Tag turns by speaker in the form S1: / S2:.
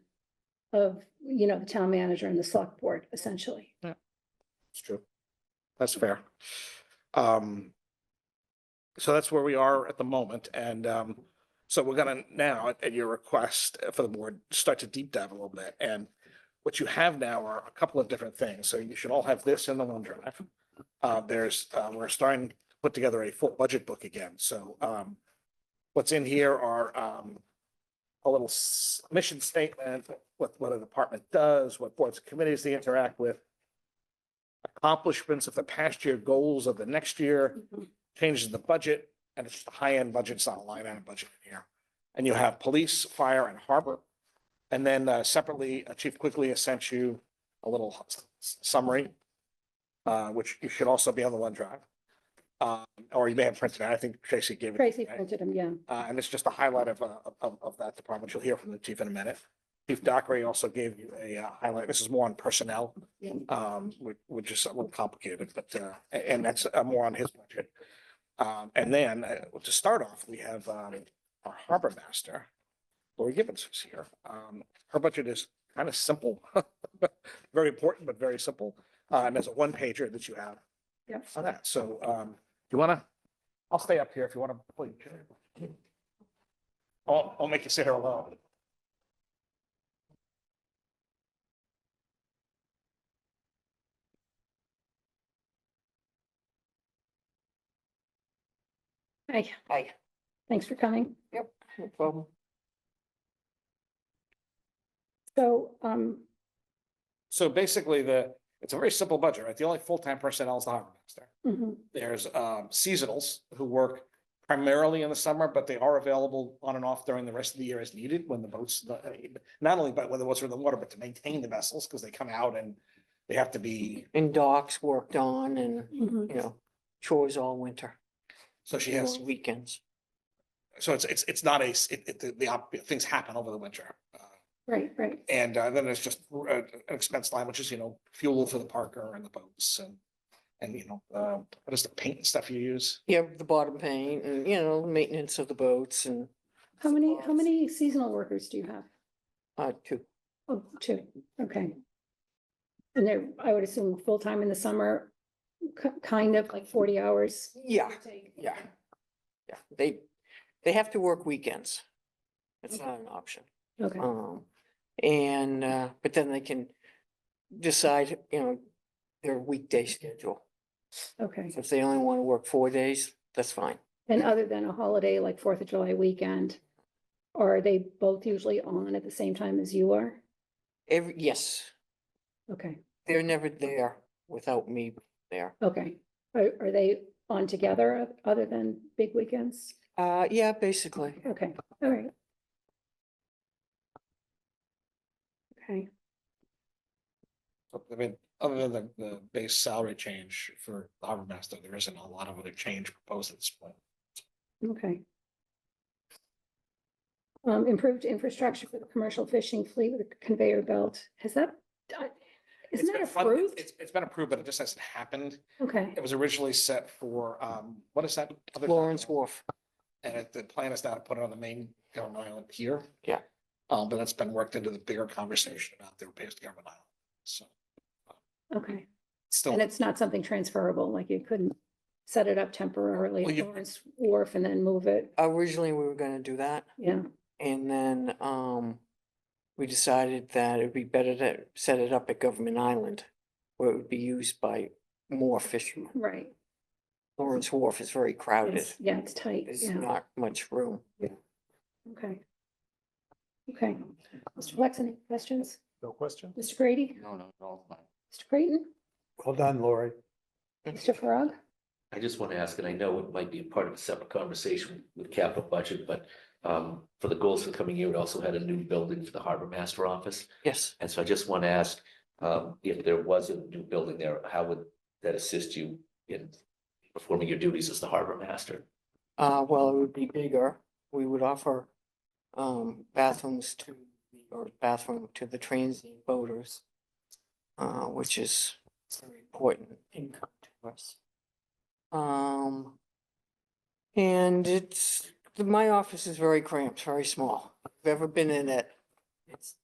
S1: of, you know, the town manager and the select board essentially.
S2: It's true. That's fair. Um, so that's where we are at the moment. And, um, so we're gonna now, at- at your request uh, for the board, start to deep dive a little bit. And what you have now are a couple of different things. So you should all have this in the OneDrive. Uh, there's, uh, we're starting to put together a full budget book again. So, um, what's in here are, um, a little s- mission statement, what, what a department does, what boards and committees they interact with accomplishments of the past year, goals of the next year, changes in the budget, and it's the high-end budget, it's not a line item budget in here. And you have police, fire, and harbor. And then uh, separately, uh, Chief Quickly has sent you a little s- s- summary, uh, which you should also be on the OneDrive. Um, Or you may have printed it. I think Tracy gave it. to you,
S1: Tracy
S2: right?
S1: printed them, yeah.
S2: Uh, and it's just a highlight of, uh, of, of that department. You'll hear from the chief in a minute. Chief Dockery also gave you a uh, highlight. This is more on personnel. Um, which, which is a little complicated, but, uh, a- and that's uh, more on his budget. Um, and then, uh, to start off, we have, um, our harbor master, Lori Gibbons is here. Um, her budget is kind of simple. Very important, but very simple. Uh, and there's a one pager that you have
S1: Yep.
S2: on that. So, um, you wanna, I'll stay up here if you wanna, please. I'll, I'll make you sit here alone.
S1: Hi. Hi. Thanks for coming.
S2: No problem.
S1: So, um,
S2: So basically the, it's a very simple budget, right? The only full-time personnel is the harbor master.
S1: mhm,
S2: There's um seasonals who work primarily in the summer, but they are available on and off during the rest of the year as needed when the boats, the- not only by when the boats are in the water, but to maintain the vessels because they come out and they have to be,
S3: and docks worked on and,
S1: mhm.
S3: you know, chores all winter.
S2: so she has,
S3: long Weekends.
S2: so it's, it's, it's not a, s- it, it, the- the, op- things happen over the winter. Uh,
S1: right, right.
S2: And uh, then there's just uh, an expense line, which is, you know, fuel for the Parker and the boats and, and, you know, uh, what is the paint and stuff you use?
S3: Yeah, the bottom paint and, you know, maintenance of the boats and,
S1: How many, how
S3: Supplies.
S1: many seasonal workers do you have?
S3: uh, two.
S1: Oh, two, okay. And they're, I would assume, full-time in the summer, ki- kind of like forty hours.
S3: Yeah,
S1: Take-
S3: yeah. yeah, they, they have to work weekends. It's not an option.
S1: Okay,
S3: Um, and, uh, but then they can decide, you know, their weekday schedule.
S1: okay.
S3: So If they only want to work four days, that's fine.
S1: And other than a holiday like Fourth of July weekend, are they both usually on at the same time as you are?
S3: Every, yes,
S1: Okay,
S3: they're never there without me there.
S1: okay. Are, are they on together o- other than big weekends?
S3: Uh, yeah, basically.
S1: Okay, all right. Okay,
S2: I mean, other than the, the base salary change for the harbor master, there isn't a lot of other change proposed at this point.
S1: okay. Um, improved infrastructure for the commercial fishing fleet with a conveyor belt. Has that, I-
S2: It's
S1: isn't that
S2: been funded-
S1: approved?
S2: It's, it's been approved, but it just hasn't happened.
S1: Okay,
S2: It was originally set for, um, what is that? other
S3: Lawrence
S2: document?
S3: Wharf.
S2: And it- the plan is now to put it on the main government island here.
S3: Yeah.
S2: Um, but that's been worked into the bigger conversation about their base government island, so
S1: okay.
S2: it's still.
S1: And it's not something transferable, like you couldn't set it up temporarily
S2: Well,
S1: at
S2: you-
S1: Lawrence Wharf and then move it,
S3: Originally, we were gonna do that,
S1: yeah.
S3: and then, um, we decided that it'd be better to set it up at Government Island, where it would be used by more fishermen.
S1: Right,
S3: Lawrence Wharf is very crowded.
S1: it's, yeah, it's tight,
S3: There's
S1: yeah,
S3: not much room.
S1: okay. Okay, Mr. Flex, any questions?
S4: No question?
S1: Mr. Grady,
S4: No, no, no. fine.
S1: Mr. Creighton,
S4: Well done, Lori.
S1: Mr. Farag?
S5: I just want to ask, and I know it might be a part of a separate conversation with capital budget, but um, for the goals for the coming year, it also had a new building for the harbor master office.
S3: Yes,
S5: And so I just want to ask, um, if there was a new building there, how would that assist you in performing your duties as the harbor master?
S3: uh, well, it would be bigger. We would offer, um, bathrooms to, the- or bathroom to the transient boaters, uh, which is very important income to us. Um, and it's, my office is very cramped, very small. If you've ever been in it, it's